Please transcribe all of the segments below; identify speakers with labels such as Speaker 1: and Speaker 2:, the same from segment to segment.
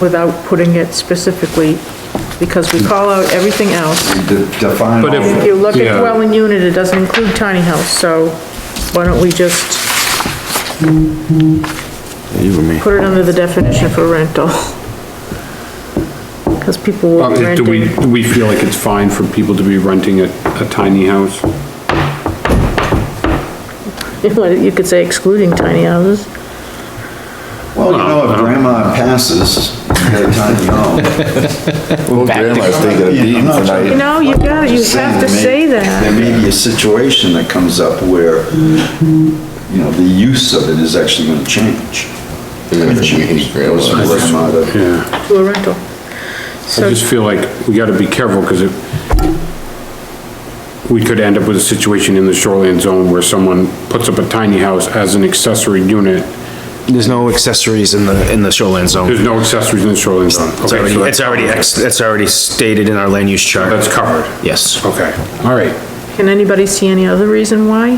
Speaker 1: without putting it specifically, because we call out everything else.
Speaker 2: De- Define all
Speaker 3: But if-
Speaker 1: If
Speaker 2: of
Speaker 1: you
Speaker 2: it.
Speaker 1: look at
Speaker 3: Yeah.
Speaker 1: dwelling unit, it doesn't include tiny house, so why don't we just
Speaker 4: You and me.
Speaker 1: put it under the definition for rental? Because people will
Speaker 3: Um,
Speaker 1: be
Speaker 3: Do we,
Speaker 1: renting.
Speaker 3: do we feel like it's fine for people to be renting a, a tiny house?
Speaker 1: You could say excluding tiny houses.
Speaker 2: Well, you know, if grandma passes, you got a tiny home.
Speaker 4: Well, grandma's taking a beating
Speaker 1: You
Speaker 4: tonight.
Speaker 1: know, you got, you have to say
Speaker 2: There
Speaker 1: that.
Speaker 2: may be a situation that comes up where, you know, the use of it is actually gonna change.
Speaker 4: Even if we hate grandma's.
Speaker 2: Goes from grandma to-
Speaker 3: Yeah,
Speaker 1: To a rental.
Speaker 3: I
Speaker 1: So,
Speaker 3: just feel like we gotta be careful, cause it, we could end up with a situation in the shoreline zone where someone puts up a tiny house as an accessory unit.
Speaker 5: There's no accessories in the, in the shoreline
Speaker 3: There's
Speaker 5: zone.
Speaker 3: no accessories in the shoreline zone.
Speaker 5: It's
Speaker 3: Okay,
Speaker 5: already,
Speaker 3: so
Speaker 5: it's already, ex- it's already stated in our land use chart.
Speaker 3: That's covered.
Speaker 5: Yes.
Speaker 3: Okay, all right.
Speaker 1: can anybody see any other reason why?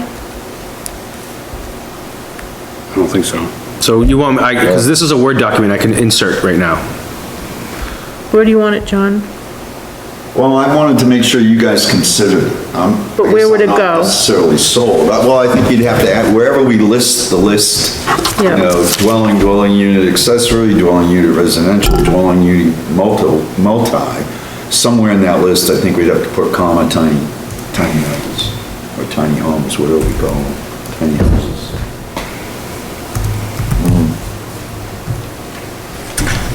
Speaker 3: I don't think so.
Speaker 5: So you want, I, because this is a Word document I can insert right now.
Speaker 1: Where do you want it, John?
Speaker 2: Well, I wanted to make sure you guys considered it. I'm-
Speaker 1: But where would it
Speaker 2: I'm
Speaker 1: go?
Speaker 2: Not necessarily sold. Uh, Well, I think you'd have to add, wherever we list the list, you
Speaker 1: Yeah.
Speaker 2: know, dwelling, dwelling unit accessory, dwelling unit residential, dwelling unit multi, multi, somewhere in that list, I think we'd have to put comma tiny, tiny houses, or tiny homes, whatever we call them, tiny houses.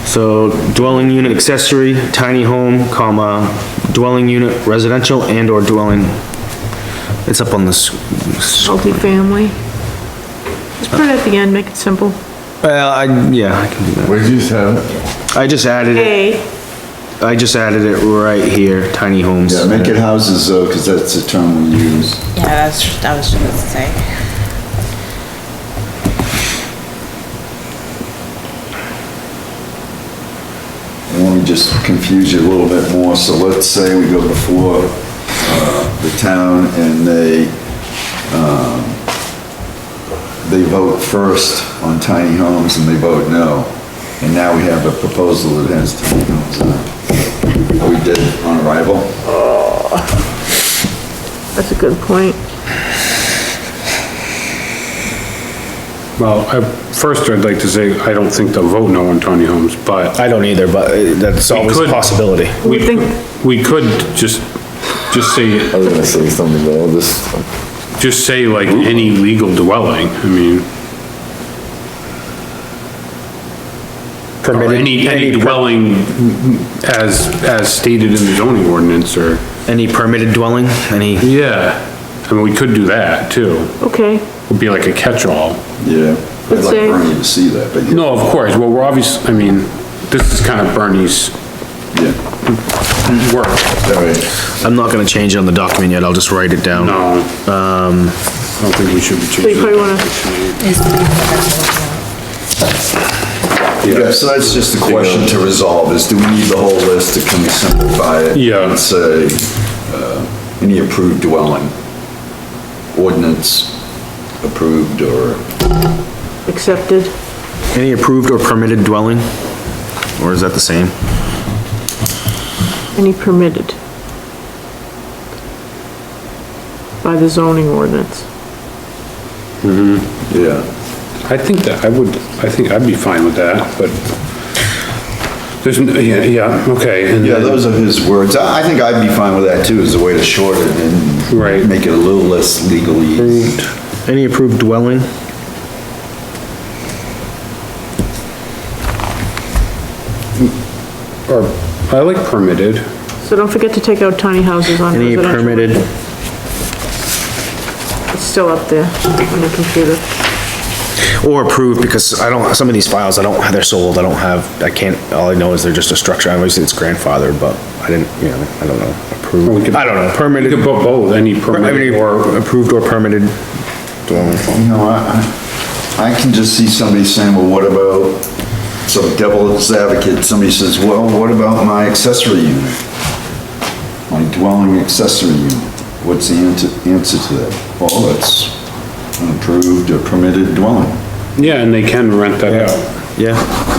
Speaker 5: So dwelling unit accessory, tiny home, comma, dwelling unit residential and or dwelling. It's up on this.
Speaker 1: Multi-family? Just put it at the end, make it simple.
Speaker 5: Well, I, yeah, I can do that.
Speaker 4: Where'd you just have it?
Speaker 5: I just added it,
Speaker 1: A,
Speaker 5: I just added it right here, tiny homes.
Speaker 2: Yeah, make it houses though, because that's the term we use.
Speaker 6: Yeah, that's, that was just gonna say.
Speaker 2: Let me just confuse you a little bit more, so let's say we go before, uh, the town and they, um, they vote first on tiny homes and they vote no, and now we have a proposal that has tiny homes on it. We did on arrival,
Speaker 1: that's a good point.
Speaker 3: Well, I, first I'd like to say, I don't think they'll vote no on tiny homes, but
Speaker 5: I don't either, but uh, that's always a
Speaker 3: could-
Speaker 5: possibility.
Speaker 3: We,
Speaker 1: We think-
Speaker 3: we could just, just say,
Speaker 4: I was gonna say something, but I'll just,
Speaker 3: just say like any legal dwelling, I mean. Or
Speaker 5: Permitted-
Speaker 3: any, any
Speaker 5: any per-
Speaker 3: dwelling as, as stated in the zoning ordinance or,
Speaker 5: Any permitted dwelling, any,
Speaker 3: yeah, I mean, we could do that too.
Speaker 1: Okay,
Speaker 3: It'd be like a catch-all.
Speaker 2: yeah. I'd
Speaker 1: Let's
Speaker 2: like
Speaker 1: say-
Speaker 2: Bernie to see that, but yeah,
Speaker 3: No, of course, well, we're obvious, I mean, this is kind of Bernie's
Speaker 2: yeah,
Speaker 3: work.
Speaker 2: all right.
Speaker 5: I'm not gonna change it on the document yet, I'll just write it down.
Speaker 3: No, um, I don't think we should be
Speaker 1: so you
Speaker 3: changing.
Speaker 1: probably
Speaker 3: it.
Speaker 1: wanna,
Speaker 2: Yeah, so that's just the question to resolve, is do we need the whole list, or can we simplify it?
Speaker 3: Yeah.
Speaker 2: And say, uh, any approved dwelling, ordinance approved, or,
Speaker 1: accepted.
Speaker 5: Any approved or permitted dwelling? Or is that the same?
Speaker 1: Any permitted? By the zoning ordinance.
Speaker 2: yeah.
Speaker 3: I think that, I would, I think I'd be fine with that, but there's, n- yeah, yeah, okay. and
Speaker 2: Yeah,
Speaker 3: then-
Speaker 2: those are his words. I I think I'd be fine with that too, as a way to shorten it
Speaker 3: Right.
Speaker 2: and make it a little less legally.
Speaker 5: Any approved dwelling?
Speaker 3: Or, I like permitted.
Speaker 1: So don't forget to take out tiny houses on
Speaker 5: Any
Speaker 1: residential.
Speaker 5: permitted,
Speaker 1: It's still up there on the computer.
Speaker 5: or approved, because I don't, some of these files, I don't, they're sold, I don't have, I can't, all I know is they're just a structure, obviously it's grandfathered, but I didn't, you know, I don't know,
Speaker 3: We
Speaker 5: approved,
Speaker 3: could-
Speaker 5: I don't know,
Speaker 3: You could
Speaker 5: permitted,
Speaker 3: put both, any
Speaker 5: I mean,
Speaker 3: permitted or,
Speaker 5: or approved or permitted dwelling.
Speaker 2: You know, I, I I can just see somebody saying, well, what about, some devil's advocate, somebody says, well, what about my accessory unit? My dwelling accessory unit, what's the answer, answer to that? Well, it's an approved or permitted dwelling.
Speaker 3: yeah, and they can rent that out.
Speaker 5: Yeah,